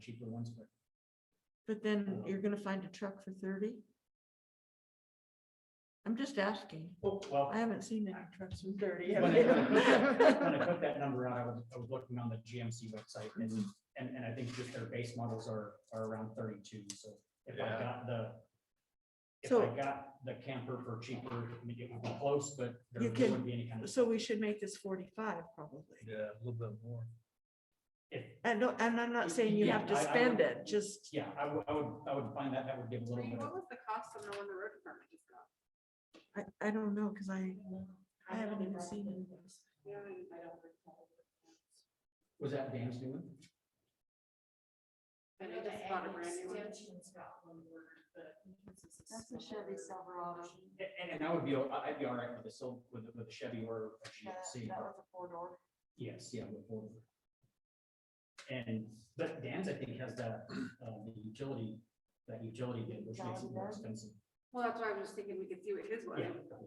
cheaper ones, but But then you're gonna find a truck for thirty? I'm just asking. Oh, well. I haven't seen any trucks for thirty. When I have when I you? put that number out, I was, I was looking on the GMC website and, and, and I think just their base models are, are around thirty-two, so if I Yeah. got the. If I So- got the camper for cheaper, I mean, it would be close, but there You there can- wouldn't be any kind of, So we should make this forty-five probably. Yeah, a little bit more. if, And no, and I'm not saying you Yeah, have to I- I spend would- it, just, yeah, I would, I would, I would find that, that would give a little Lee, bit of. What was the cost of the one the road department just got? I, I don't know, cause I, I haven't even seen any of those. You know, I don't recall. Was that Dan's new one? And they just bought a brand new one. That's a Chevy Silverado. And, and I would be, o- I- I'd be all right with the, sil- with, the- with the Chevy or a That GMC. that was a four door. Yes, yeah. we'll forward. And, but Dan's, I think, has that, uh, the utility, that utility bid, which makes it more expensive. Well, that's why I was just thinking we could see what his was. Um,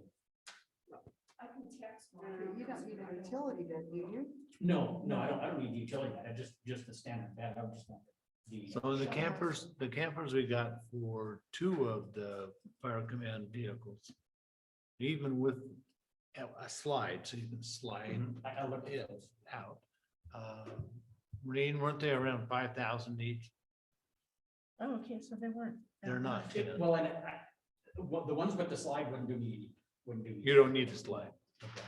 Yeah, I can text mine. You don't need a utility bid, do you? no, no, I don't, I don't need utility, I just, just the standard bed, I would just want the. uh, So the campers, the campers we got for two of the fire command vehicles. Even with a a slide, so you can slide I, Mhm. I looked at it those. out. uh, Rain, weren't they around five thousand each? Oh, okay, so they weren't. that They're not. much. It- Well, and I, well, the ones with the slide wouldn't do me, any- wouldn't do. me You don't need a slide. Okay.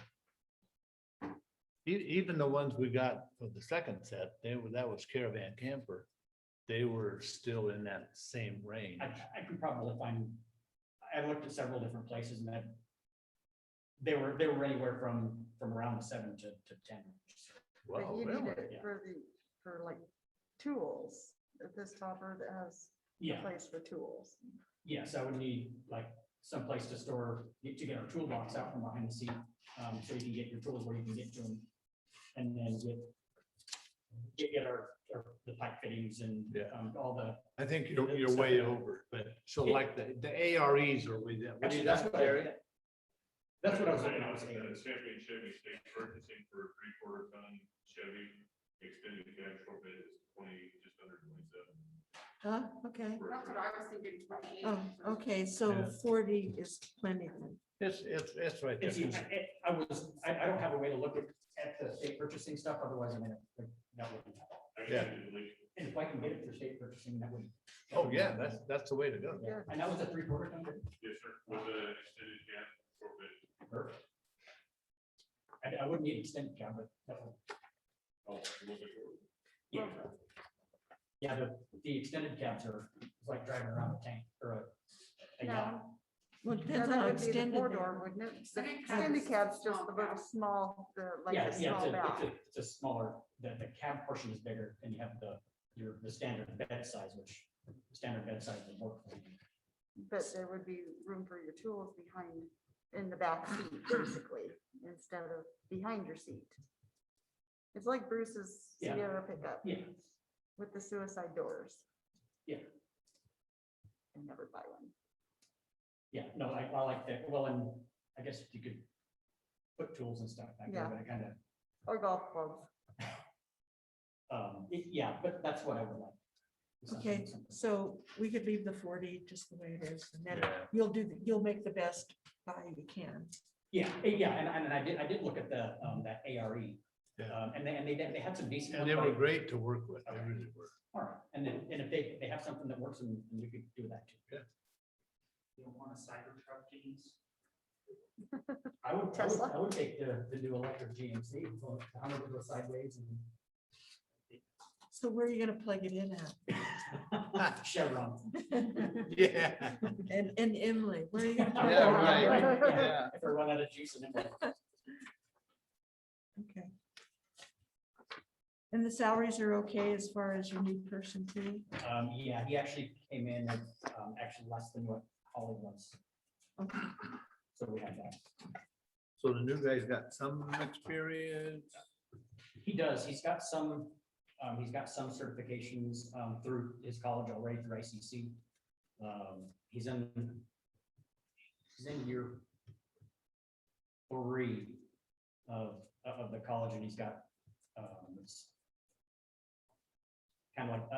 E- even the ones we got for the second set, they were, that was caravan camper. They were still in that same range. I, I could probably find, I looked at several different places and that they were, they were anywhere from, from around seven to, to ten. But Wow, you need really? it Yeah. for the, for like tools, this topper that has Yeah. a place for tools. Yes, I would need like someplace to store, to get our toolbox out from behind the seat, um, so you can get your tools where you can get to them. And then get, get, get our, our, the pipe fittings and, Yeah. um, all the. I think you're, you're way over, but so like the, the AREs are with that. what Actually, do you that's got, what I- Jerry? That's what I was looking at, At was the ARs. championship, you think purchasing for a three quarter ton Chevy, extended cab short bid is twenty, just under twenty seven. Huh, okay, That's what I was thinking. probably. oh, okay, so Yeah. forty is plenty then. It's, it's, it's right And see, there. I- I I was, I, I don't have a way to look at, at the state purchasing stuff, otherwise I'm gonna, like, that would. Yeah. And if I can get it for state purchasing, that would. that Oh, would be- yeah, that's, that's the way to go. Yeah. And that was a three quarter ton, Yes, sir, with the extended cab short bid. perfect. I, I wouldn't need extended cab, but that would. Oh, it was a- Yeah. Yeah, the, the extended cabs are, it's like driving around a tank or a- a. yacht. Well, Now, depends on that how would be the extended four they door, are. wouldn't it? The big cab Extended is cab's small just a little cab. small, the, like Yeah, a yeah, it's small a, it's back. a, it's a smaller, the, the cab portion is bigger and you have the, your, the standard bed size, which standard bed size would work. for you. But there would be room for your tools behind, in the back seat, basically, instead of behind your seat. It's like Bruce's Yeah. Sierra pickup. Yeah. With the suicide doors. Yeah. And never buy one. Yeah, no, I, I like that. Well, and I guess you could put tools and stuff back there, Yeah. but I kind of, Or golf clubs. um, it- yeah, but that's what I would like. Something- Okay, something. so we could leave the forty just the way it is, and then Yeah. you'll do, the- you'll make the best buy you can. Yeah, eh, yeah, and, and I did, I did look at the, um, that ARE. Yeah. Um, and they, and they, they had some decent. And they ones, were but- great to work with. They really were. All right, and then, and if they, they have something that works, then we could do that too. Yeah. You don't want a Cybertruck, James? I would, I would, I would take the, the new electric GMC, well, the Hummer would go sideways So where are you gonna plug it in and at? Chevron. Yeah. And, and Emily, where are you gonna? plug it Yeah, in? right. Yeah. If I run out of juice and. Okay. And the salaries are okay as far as your new person too? Um, yeah, he actually came in, at, um, actually less than what Holly was, Okay. so we have that. So the new guy's got some experience. He does, he's got some, um, he's got some certifications, um, through his college already through ICC. Um, he's in, he's in year three of, of the college and he's got, um, it's kind of like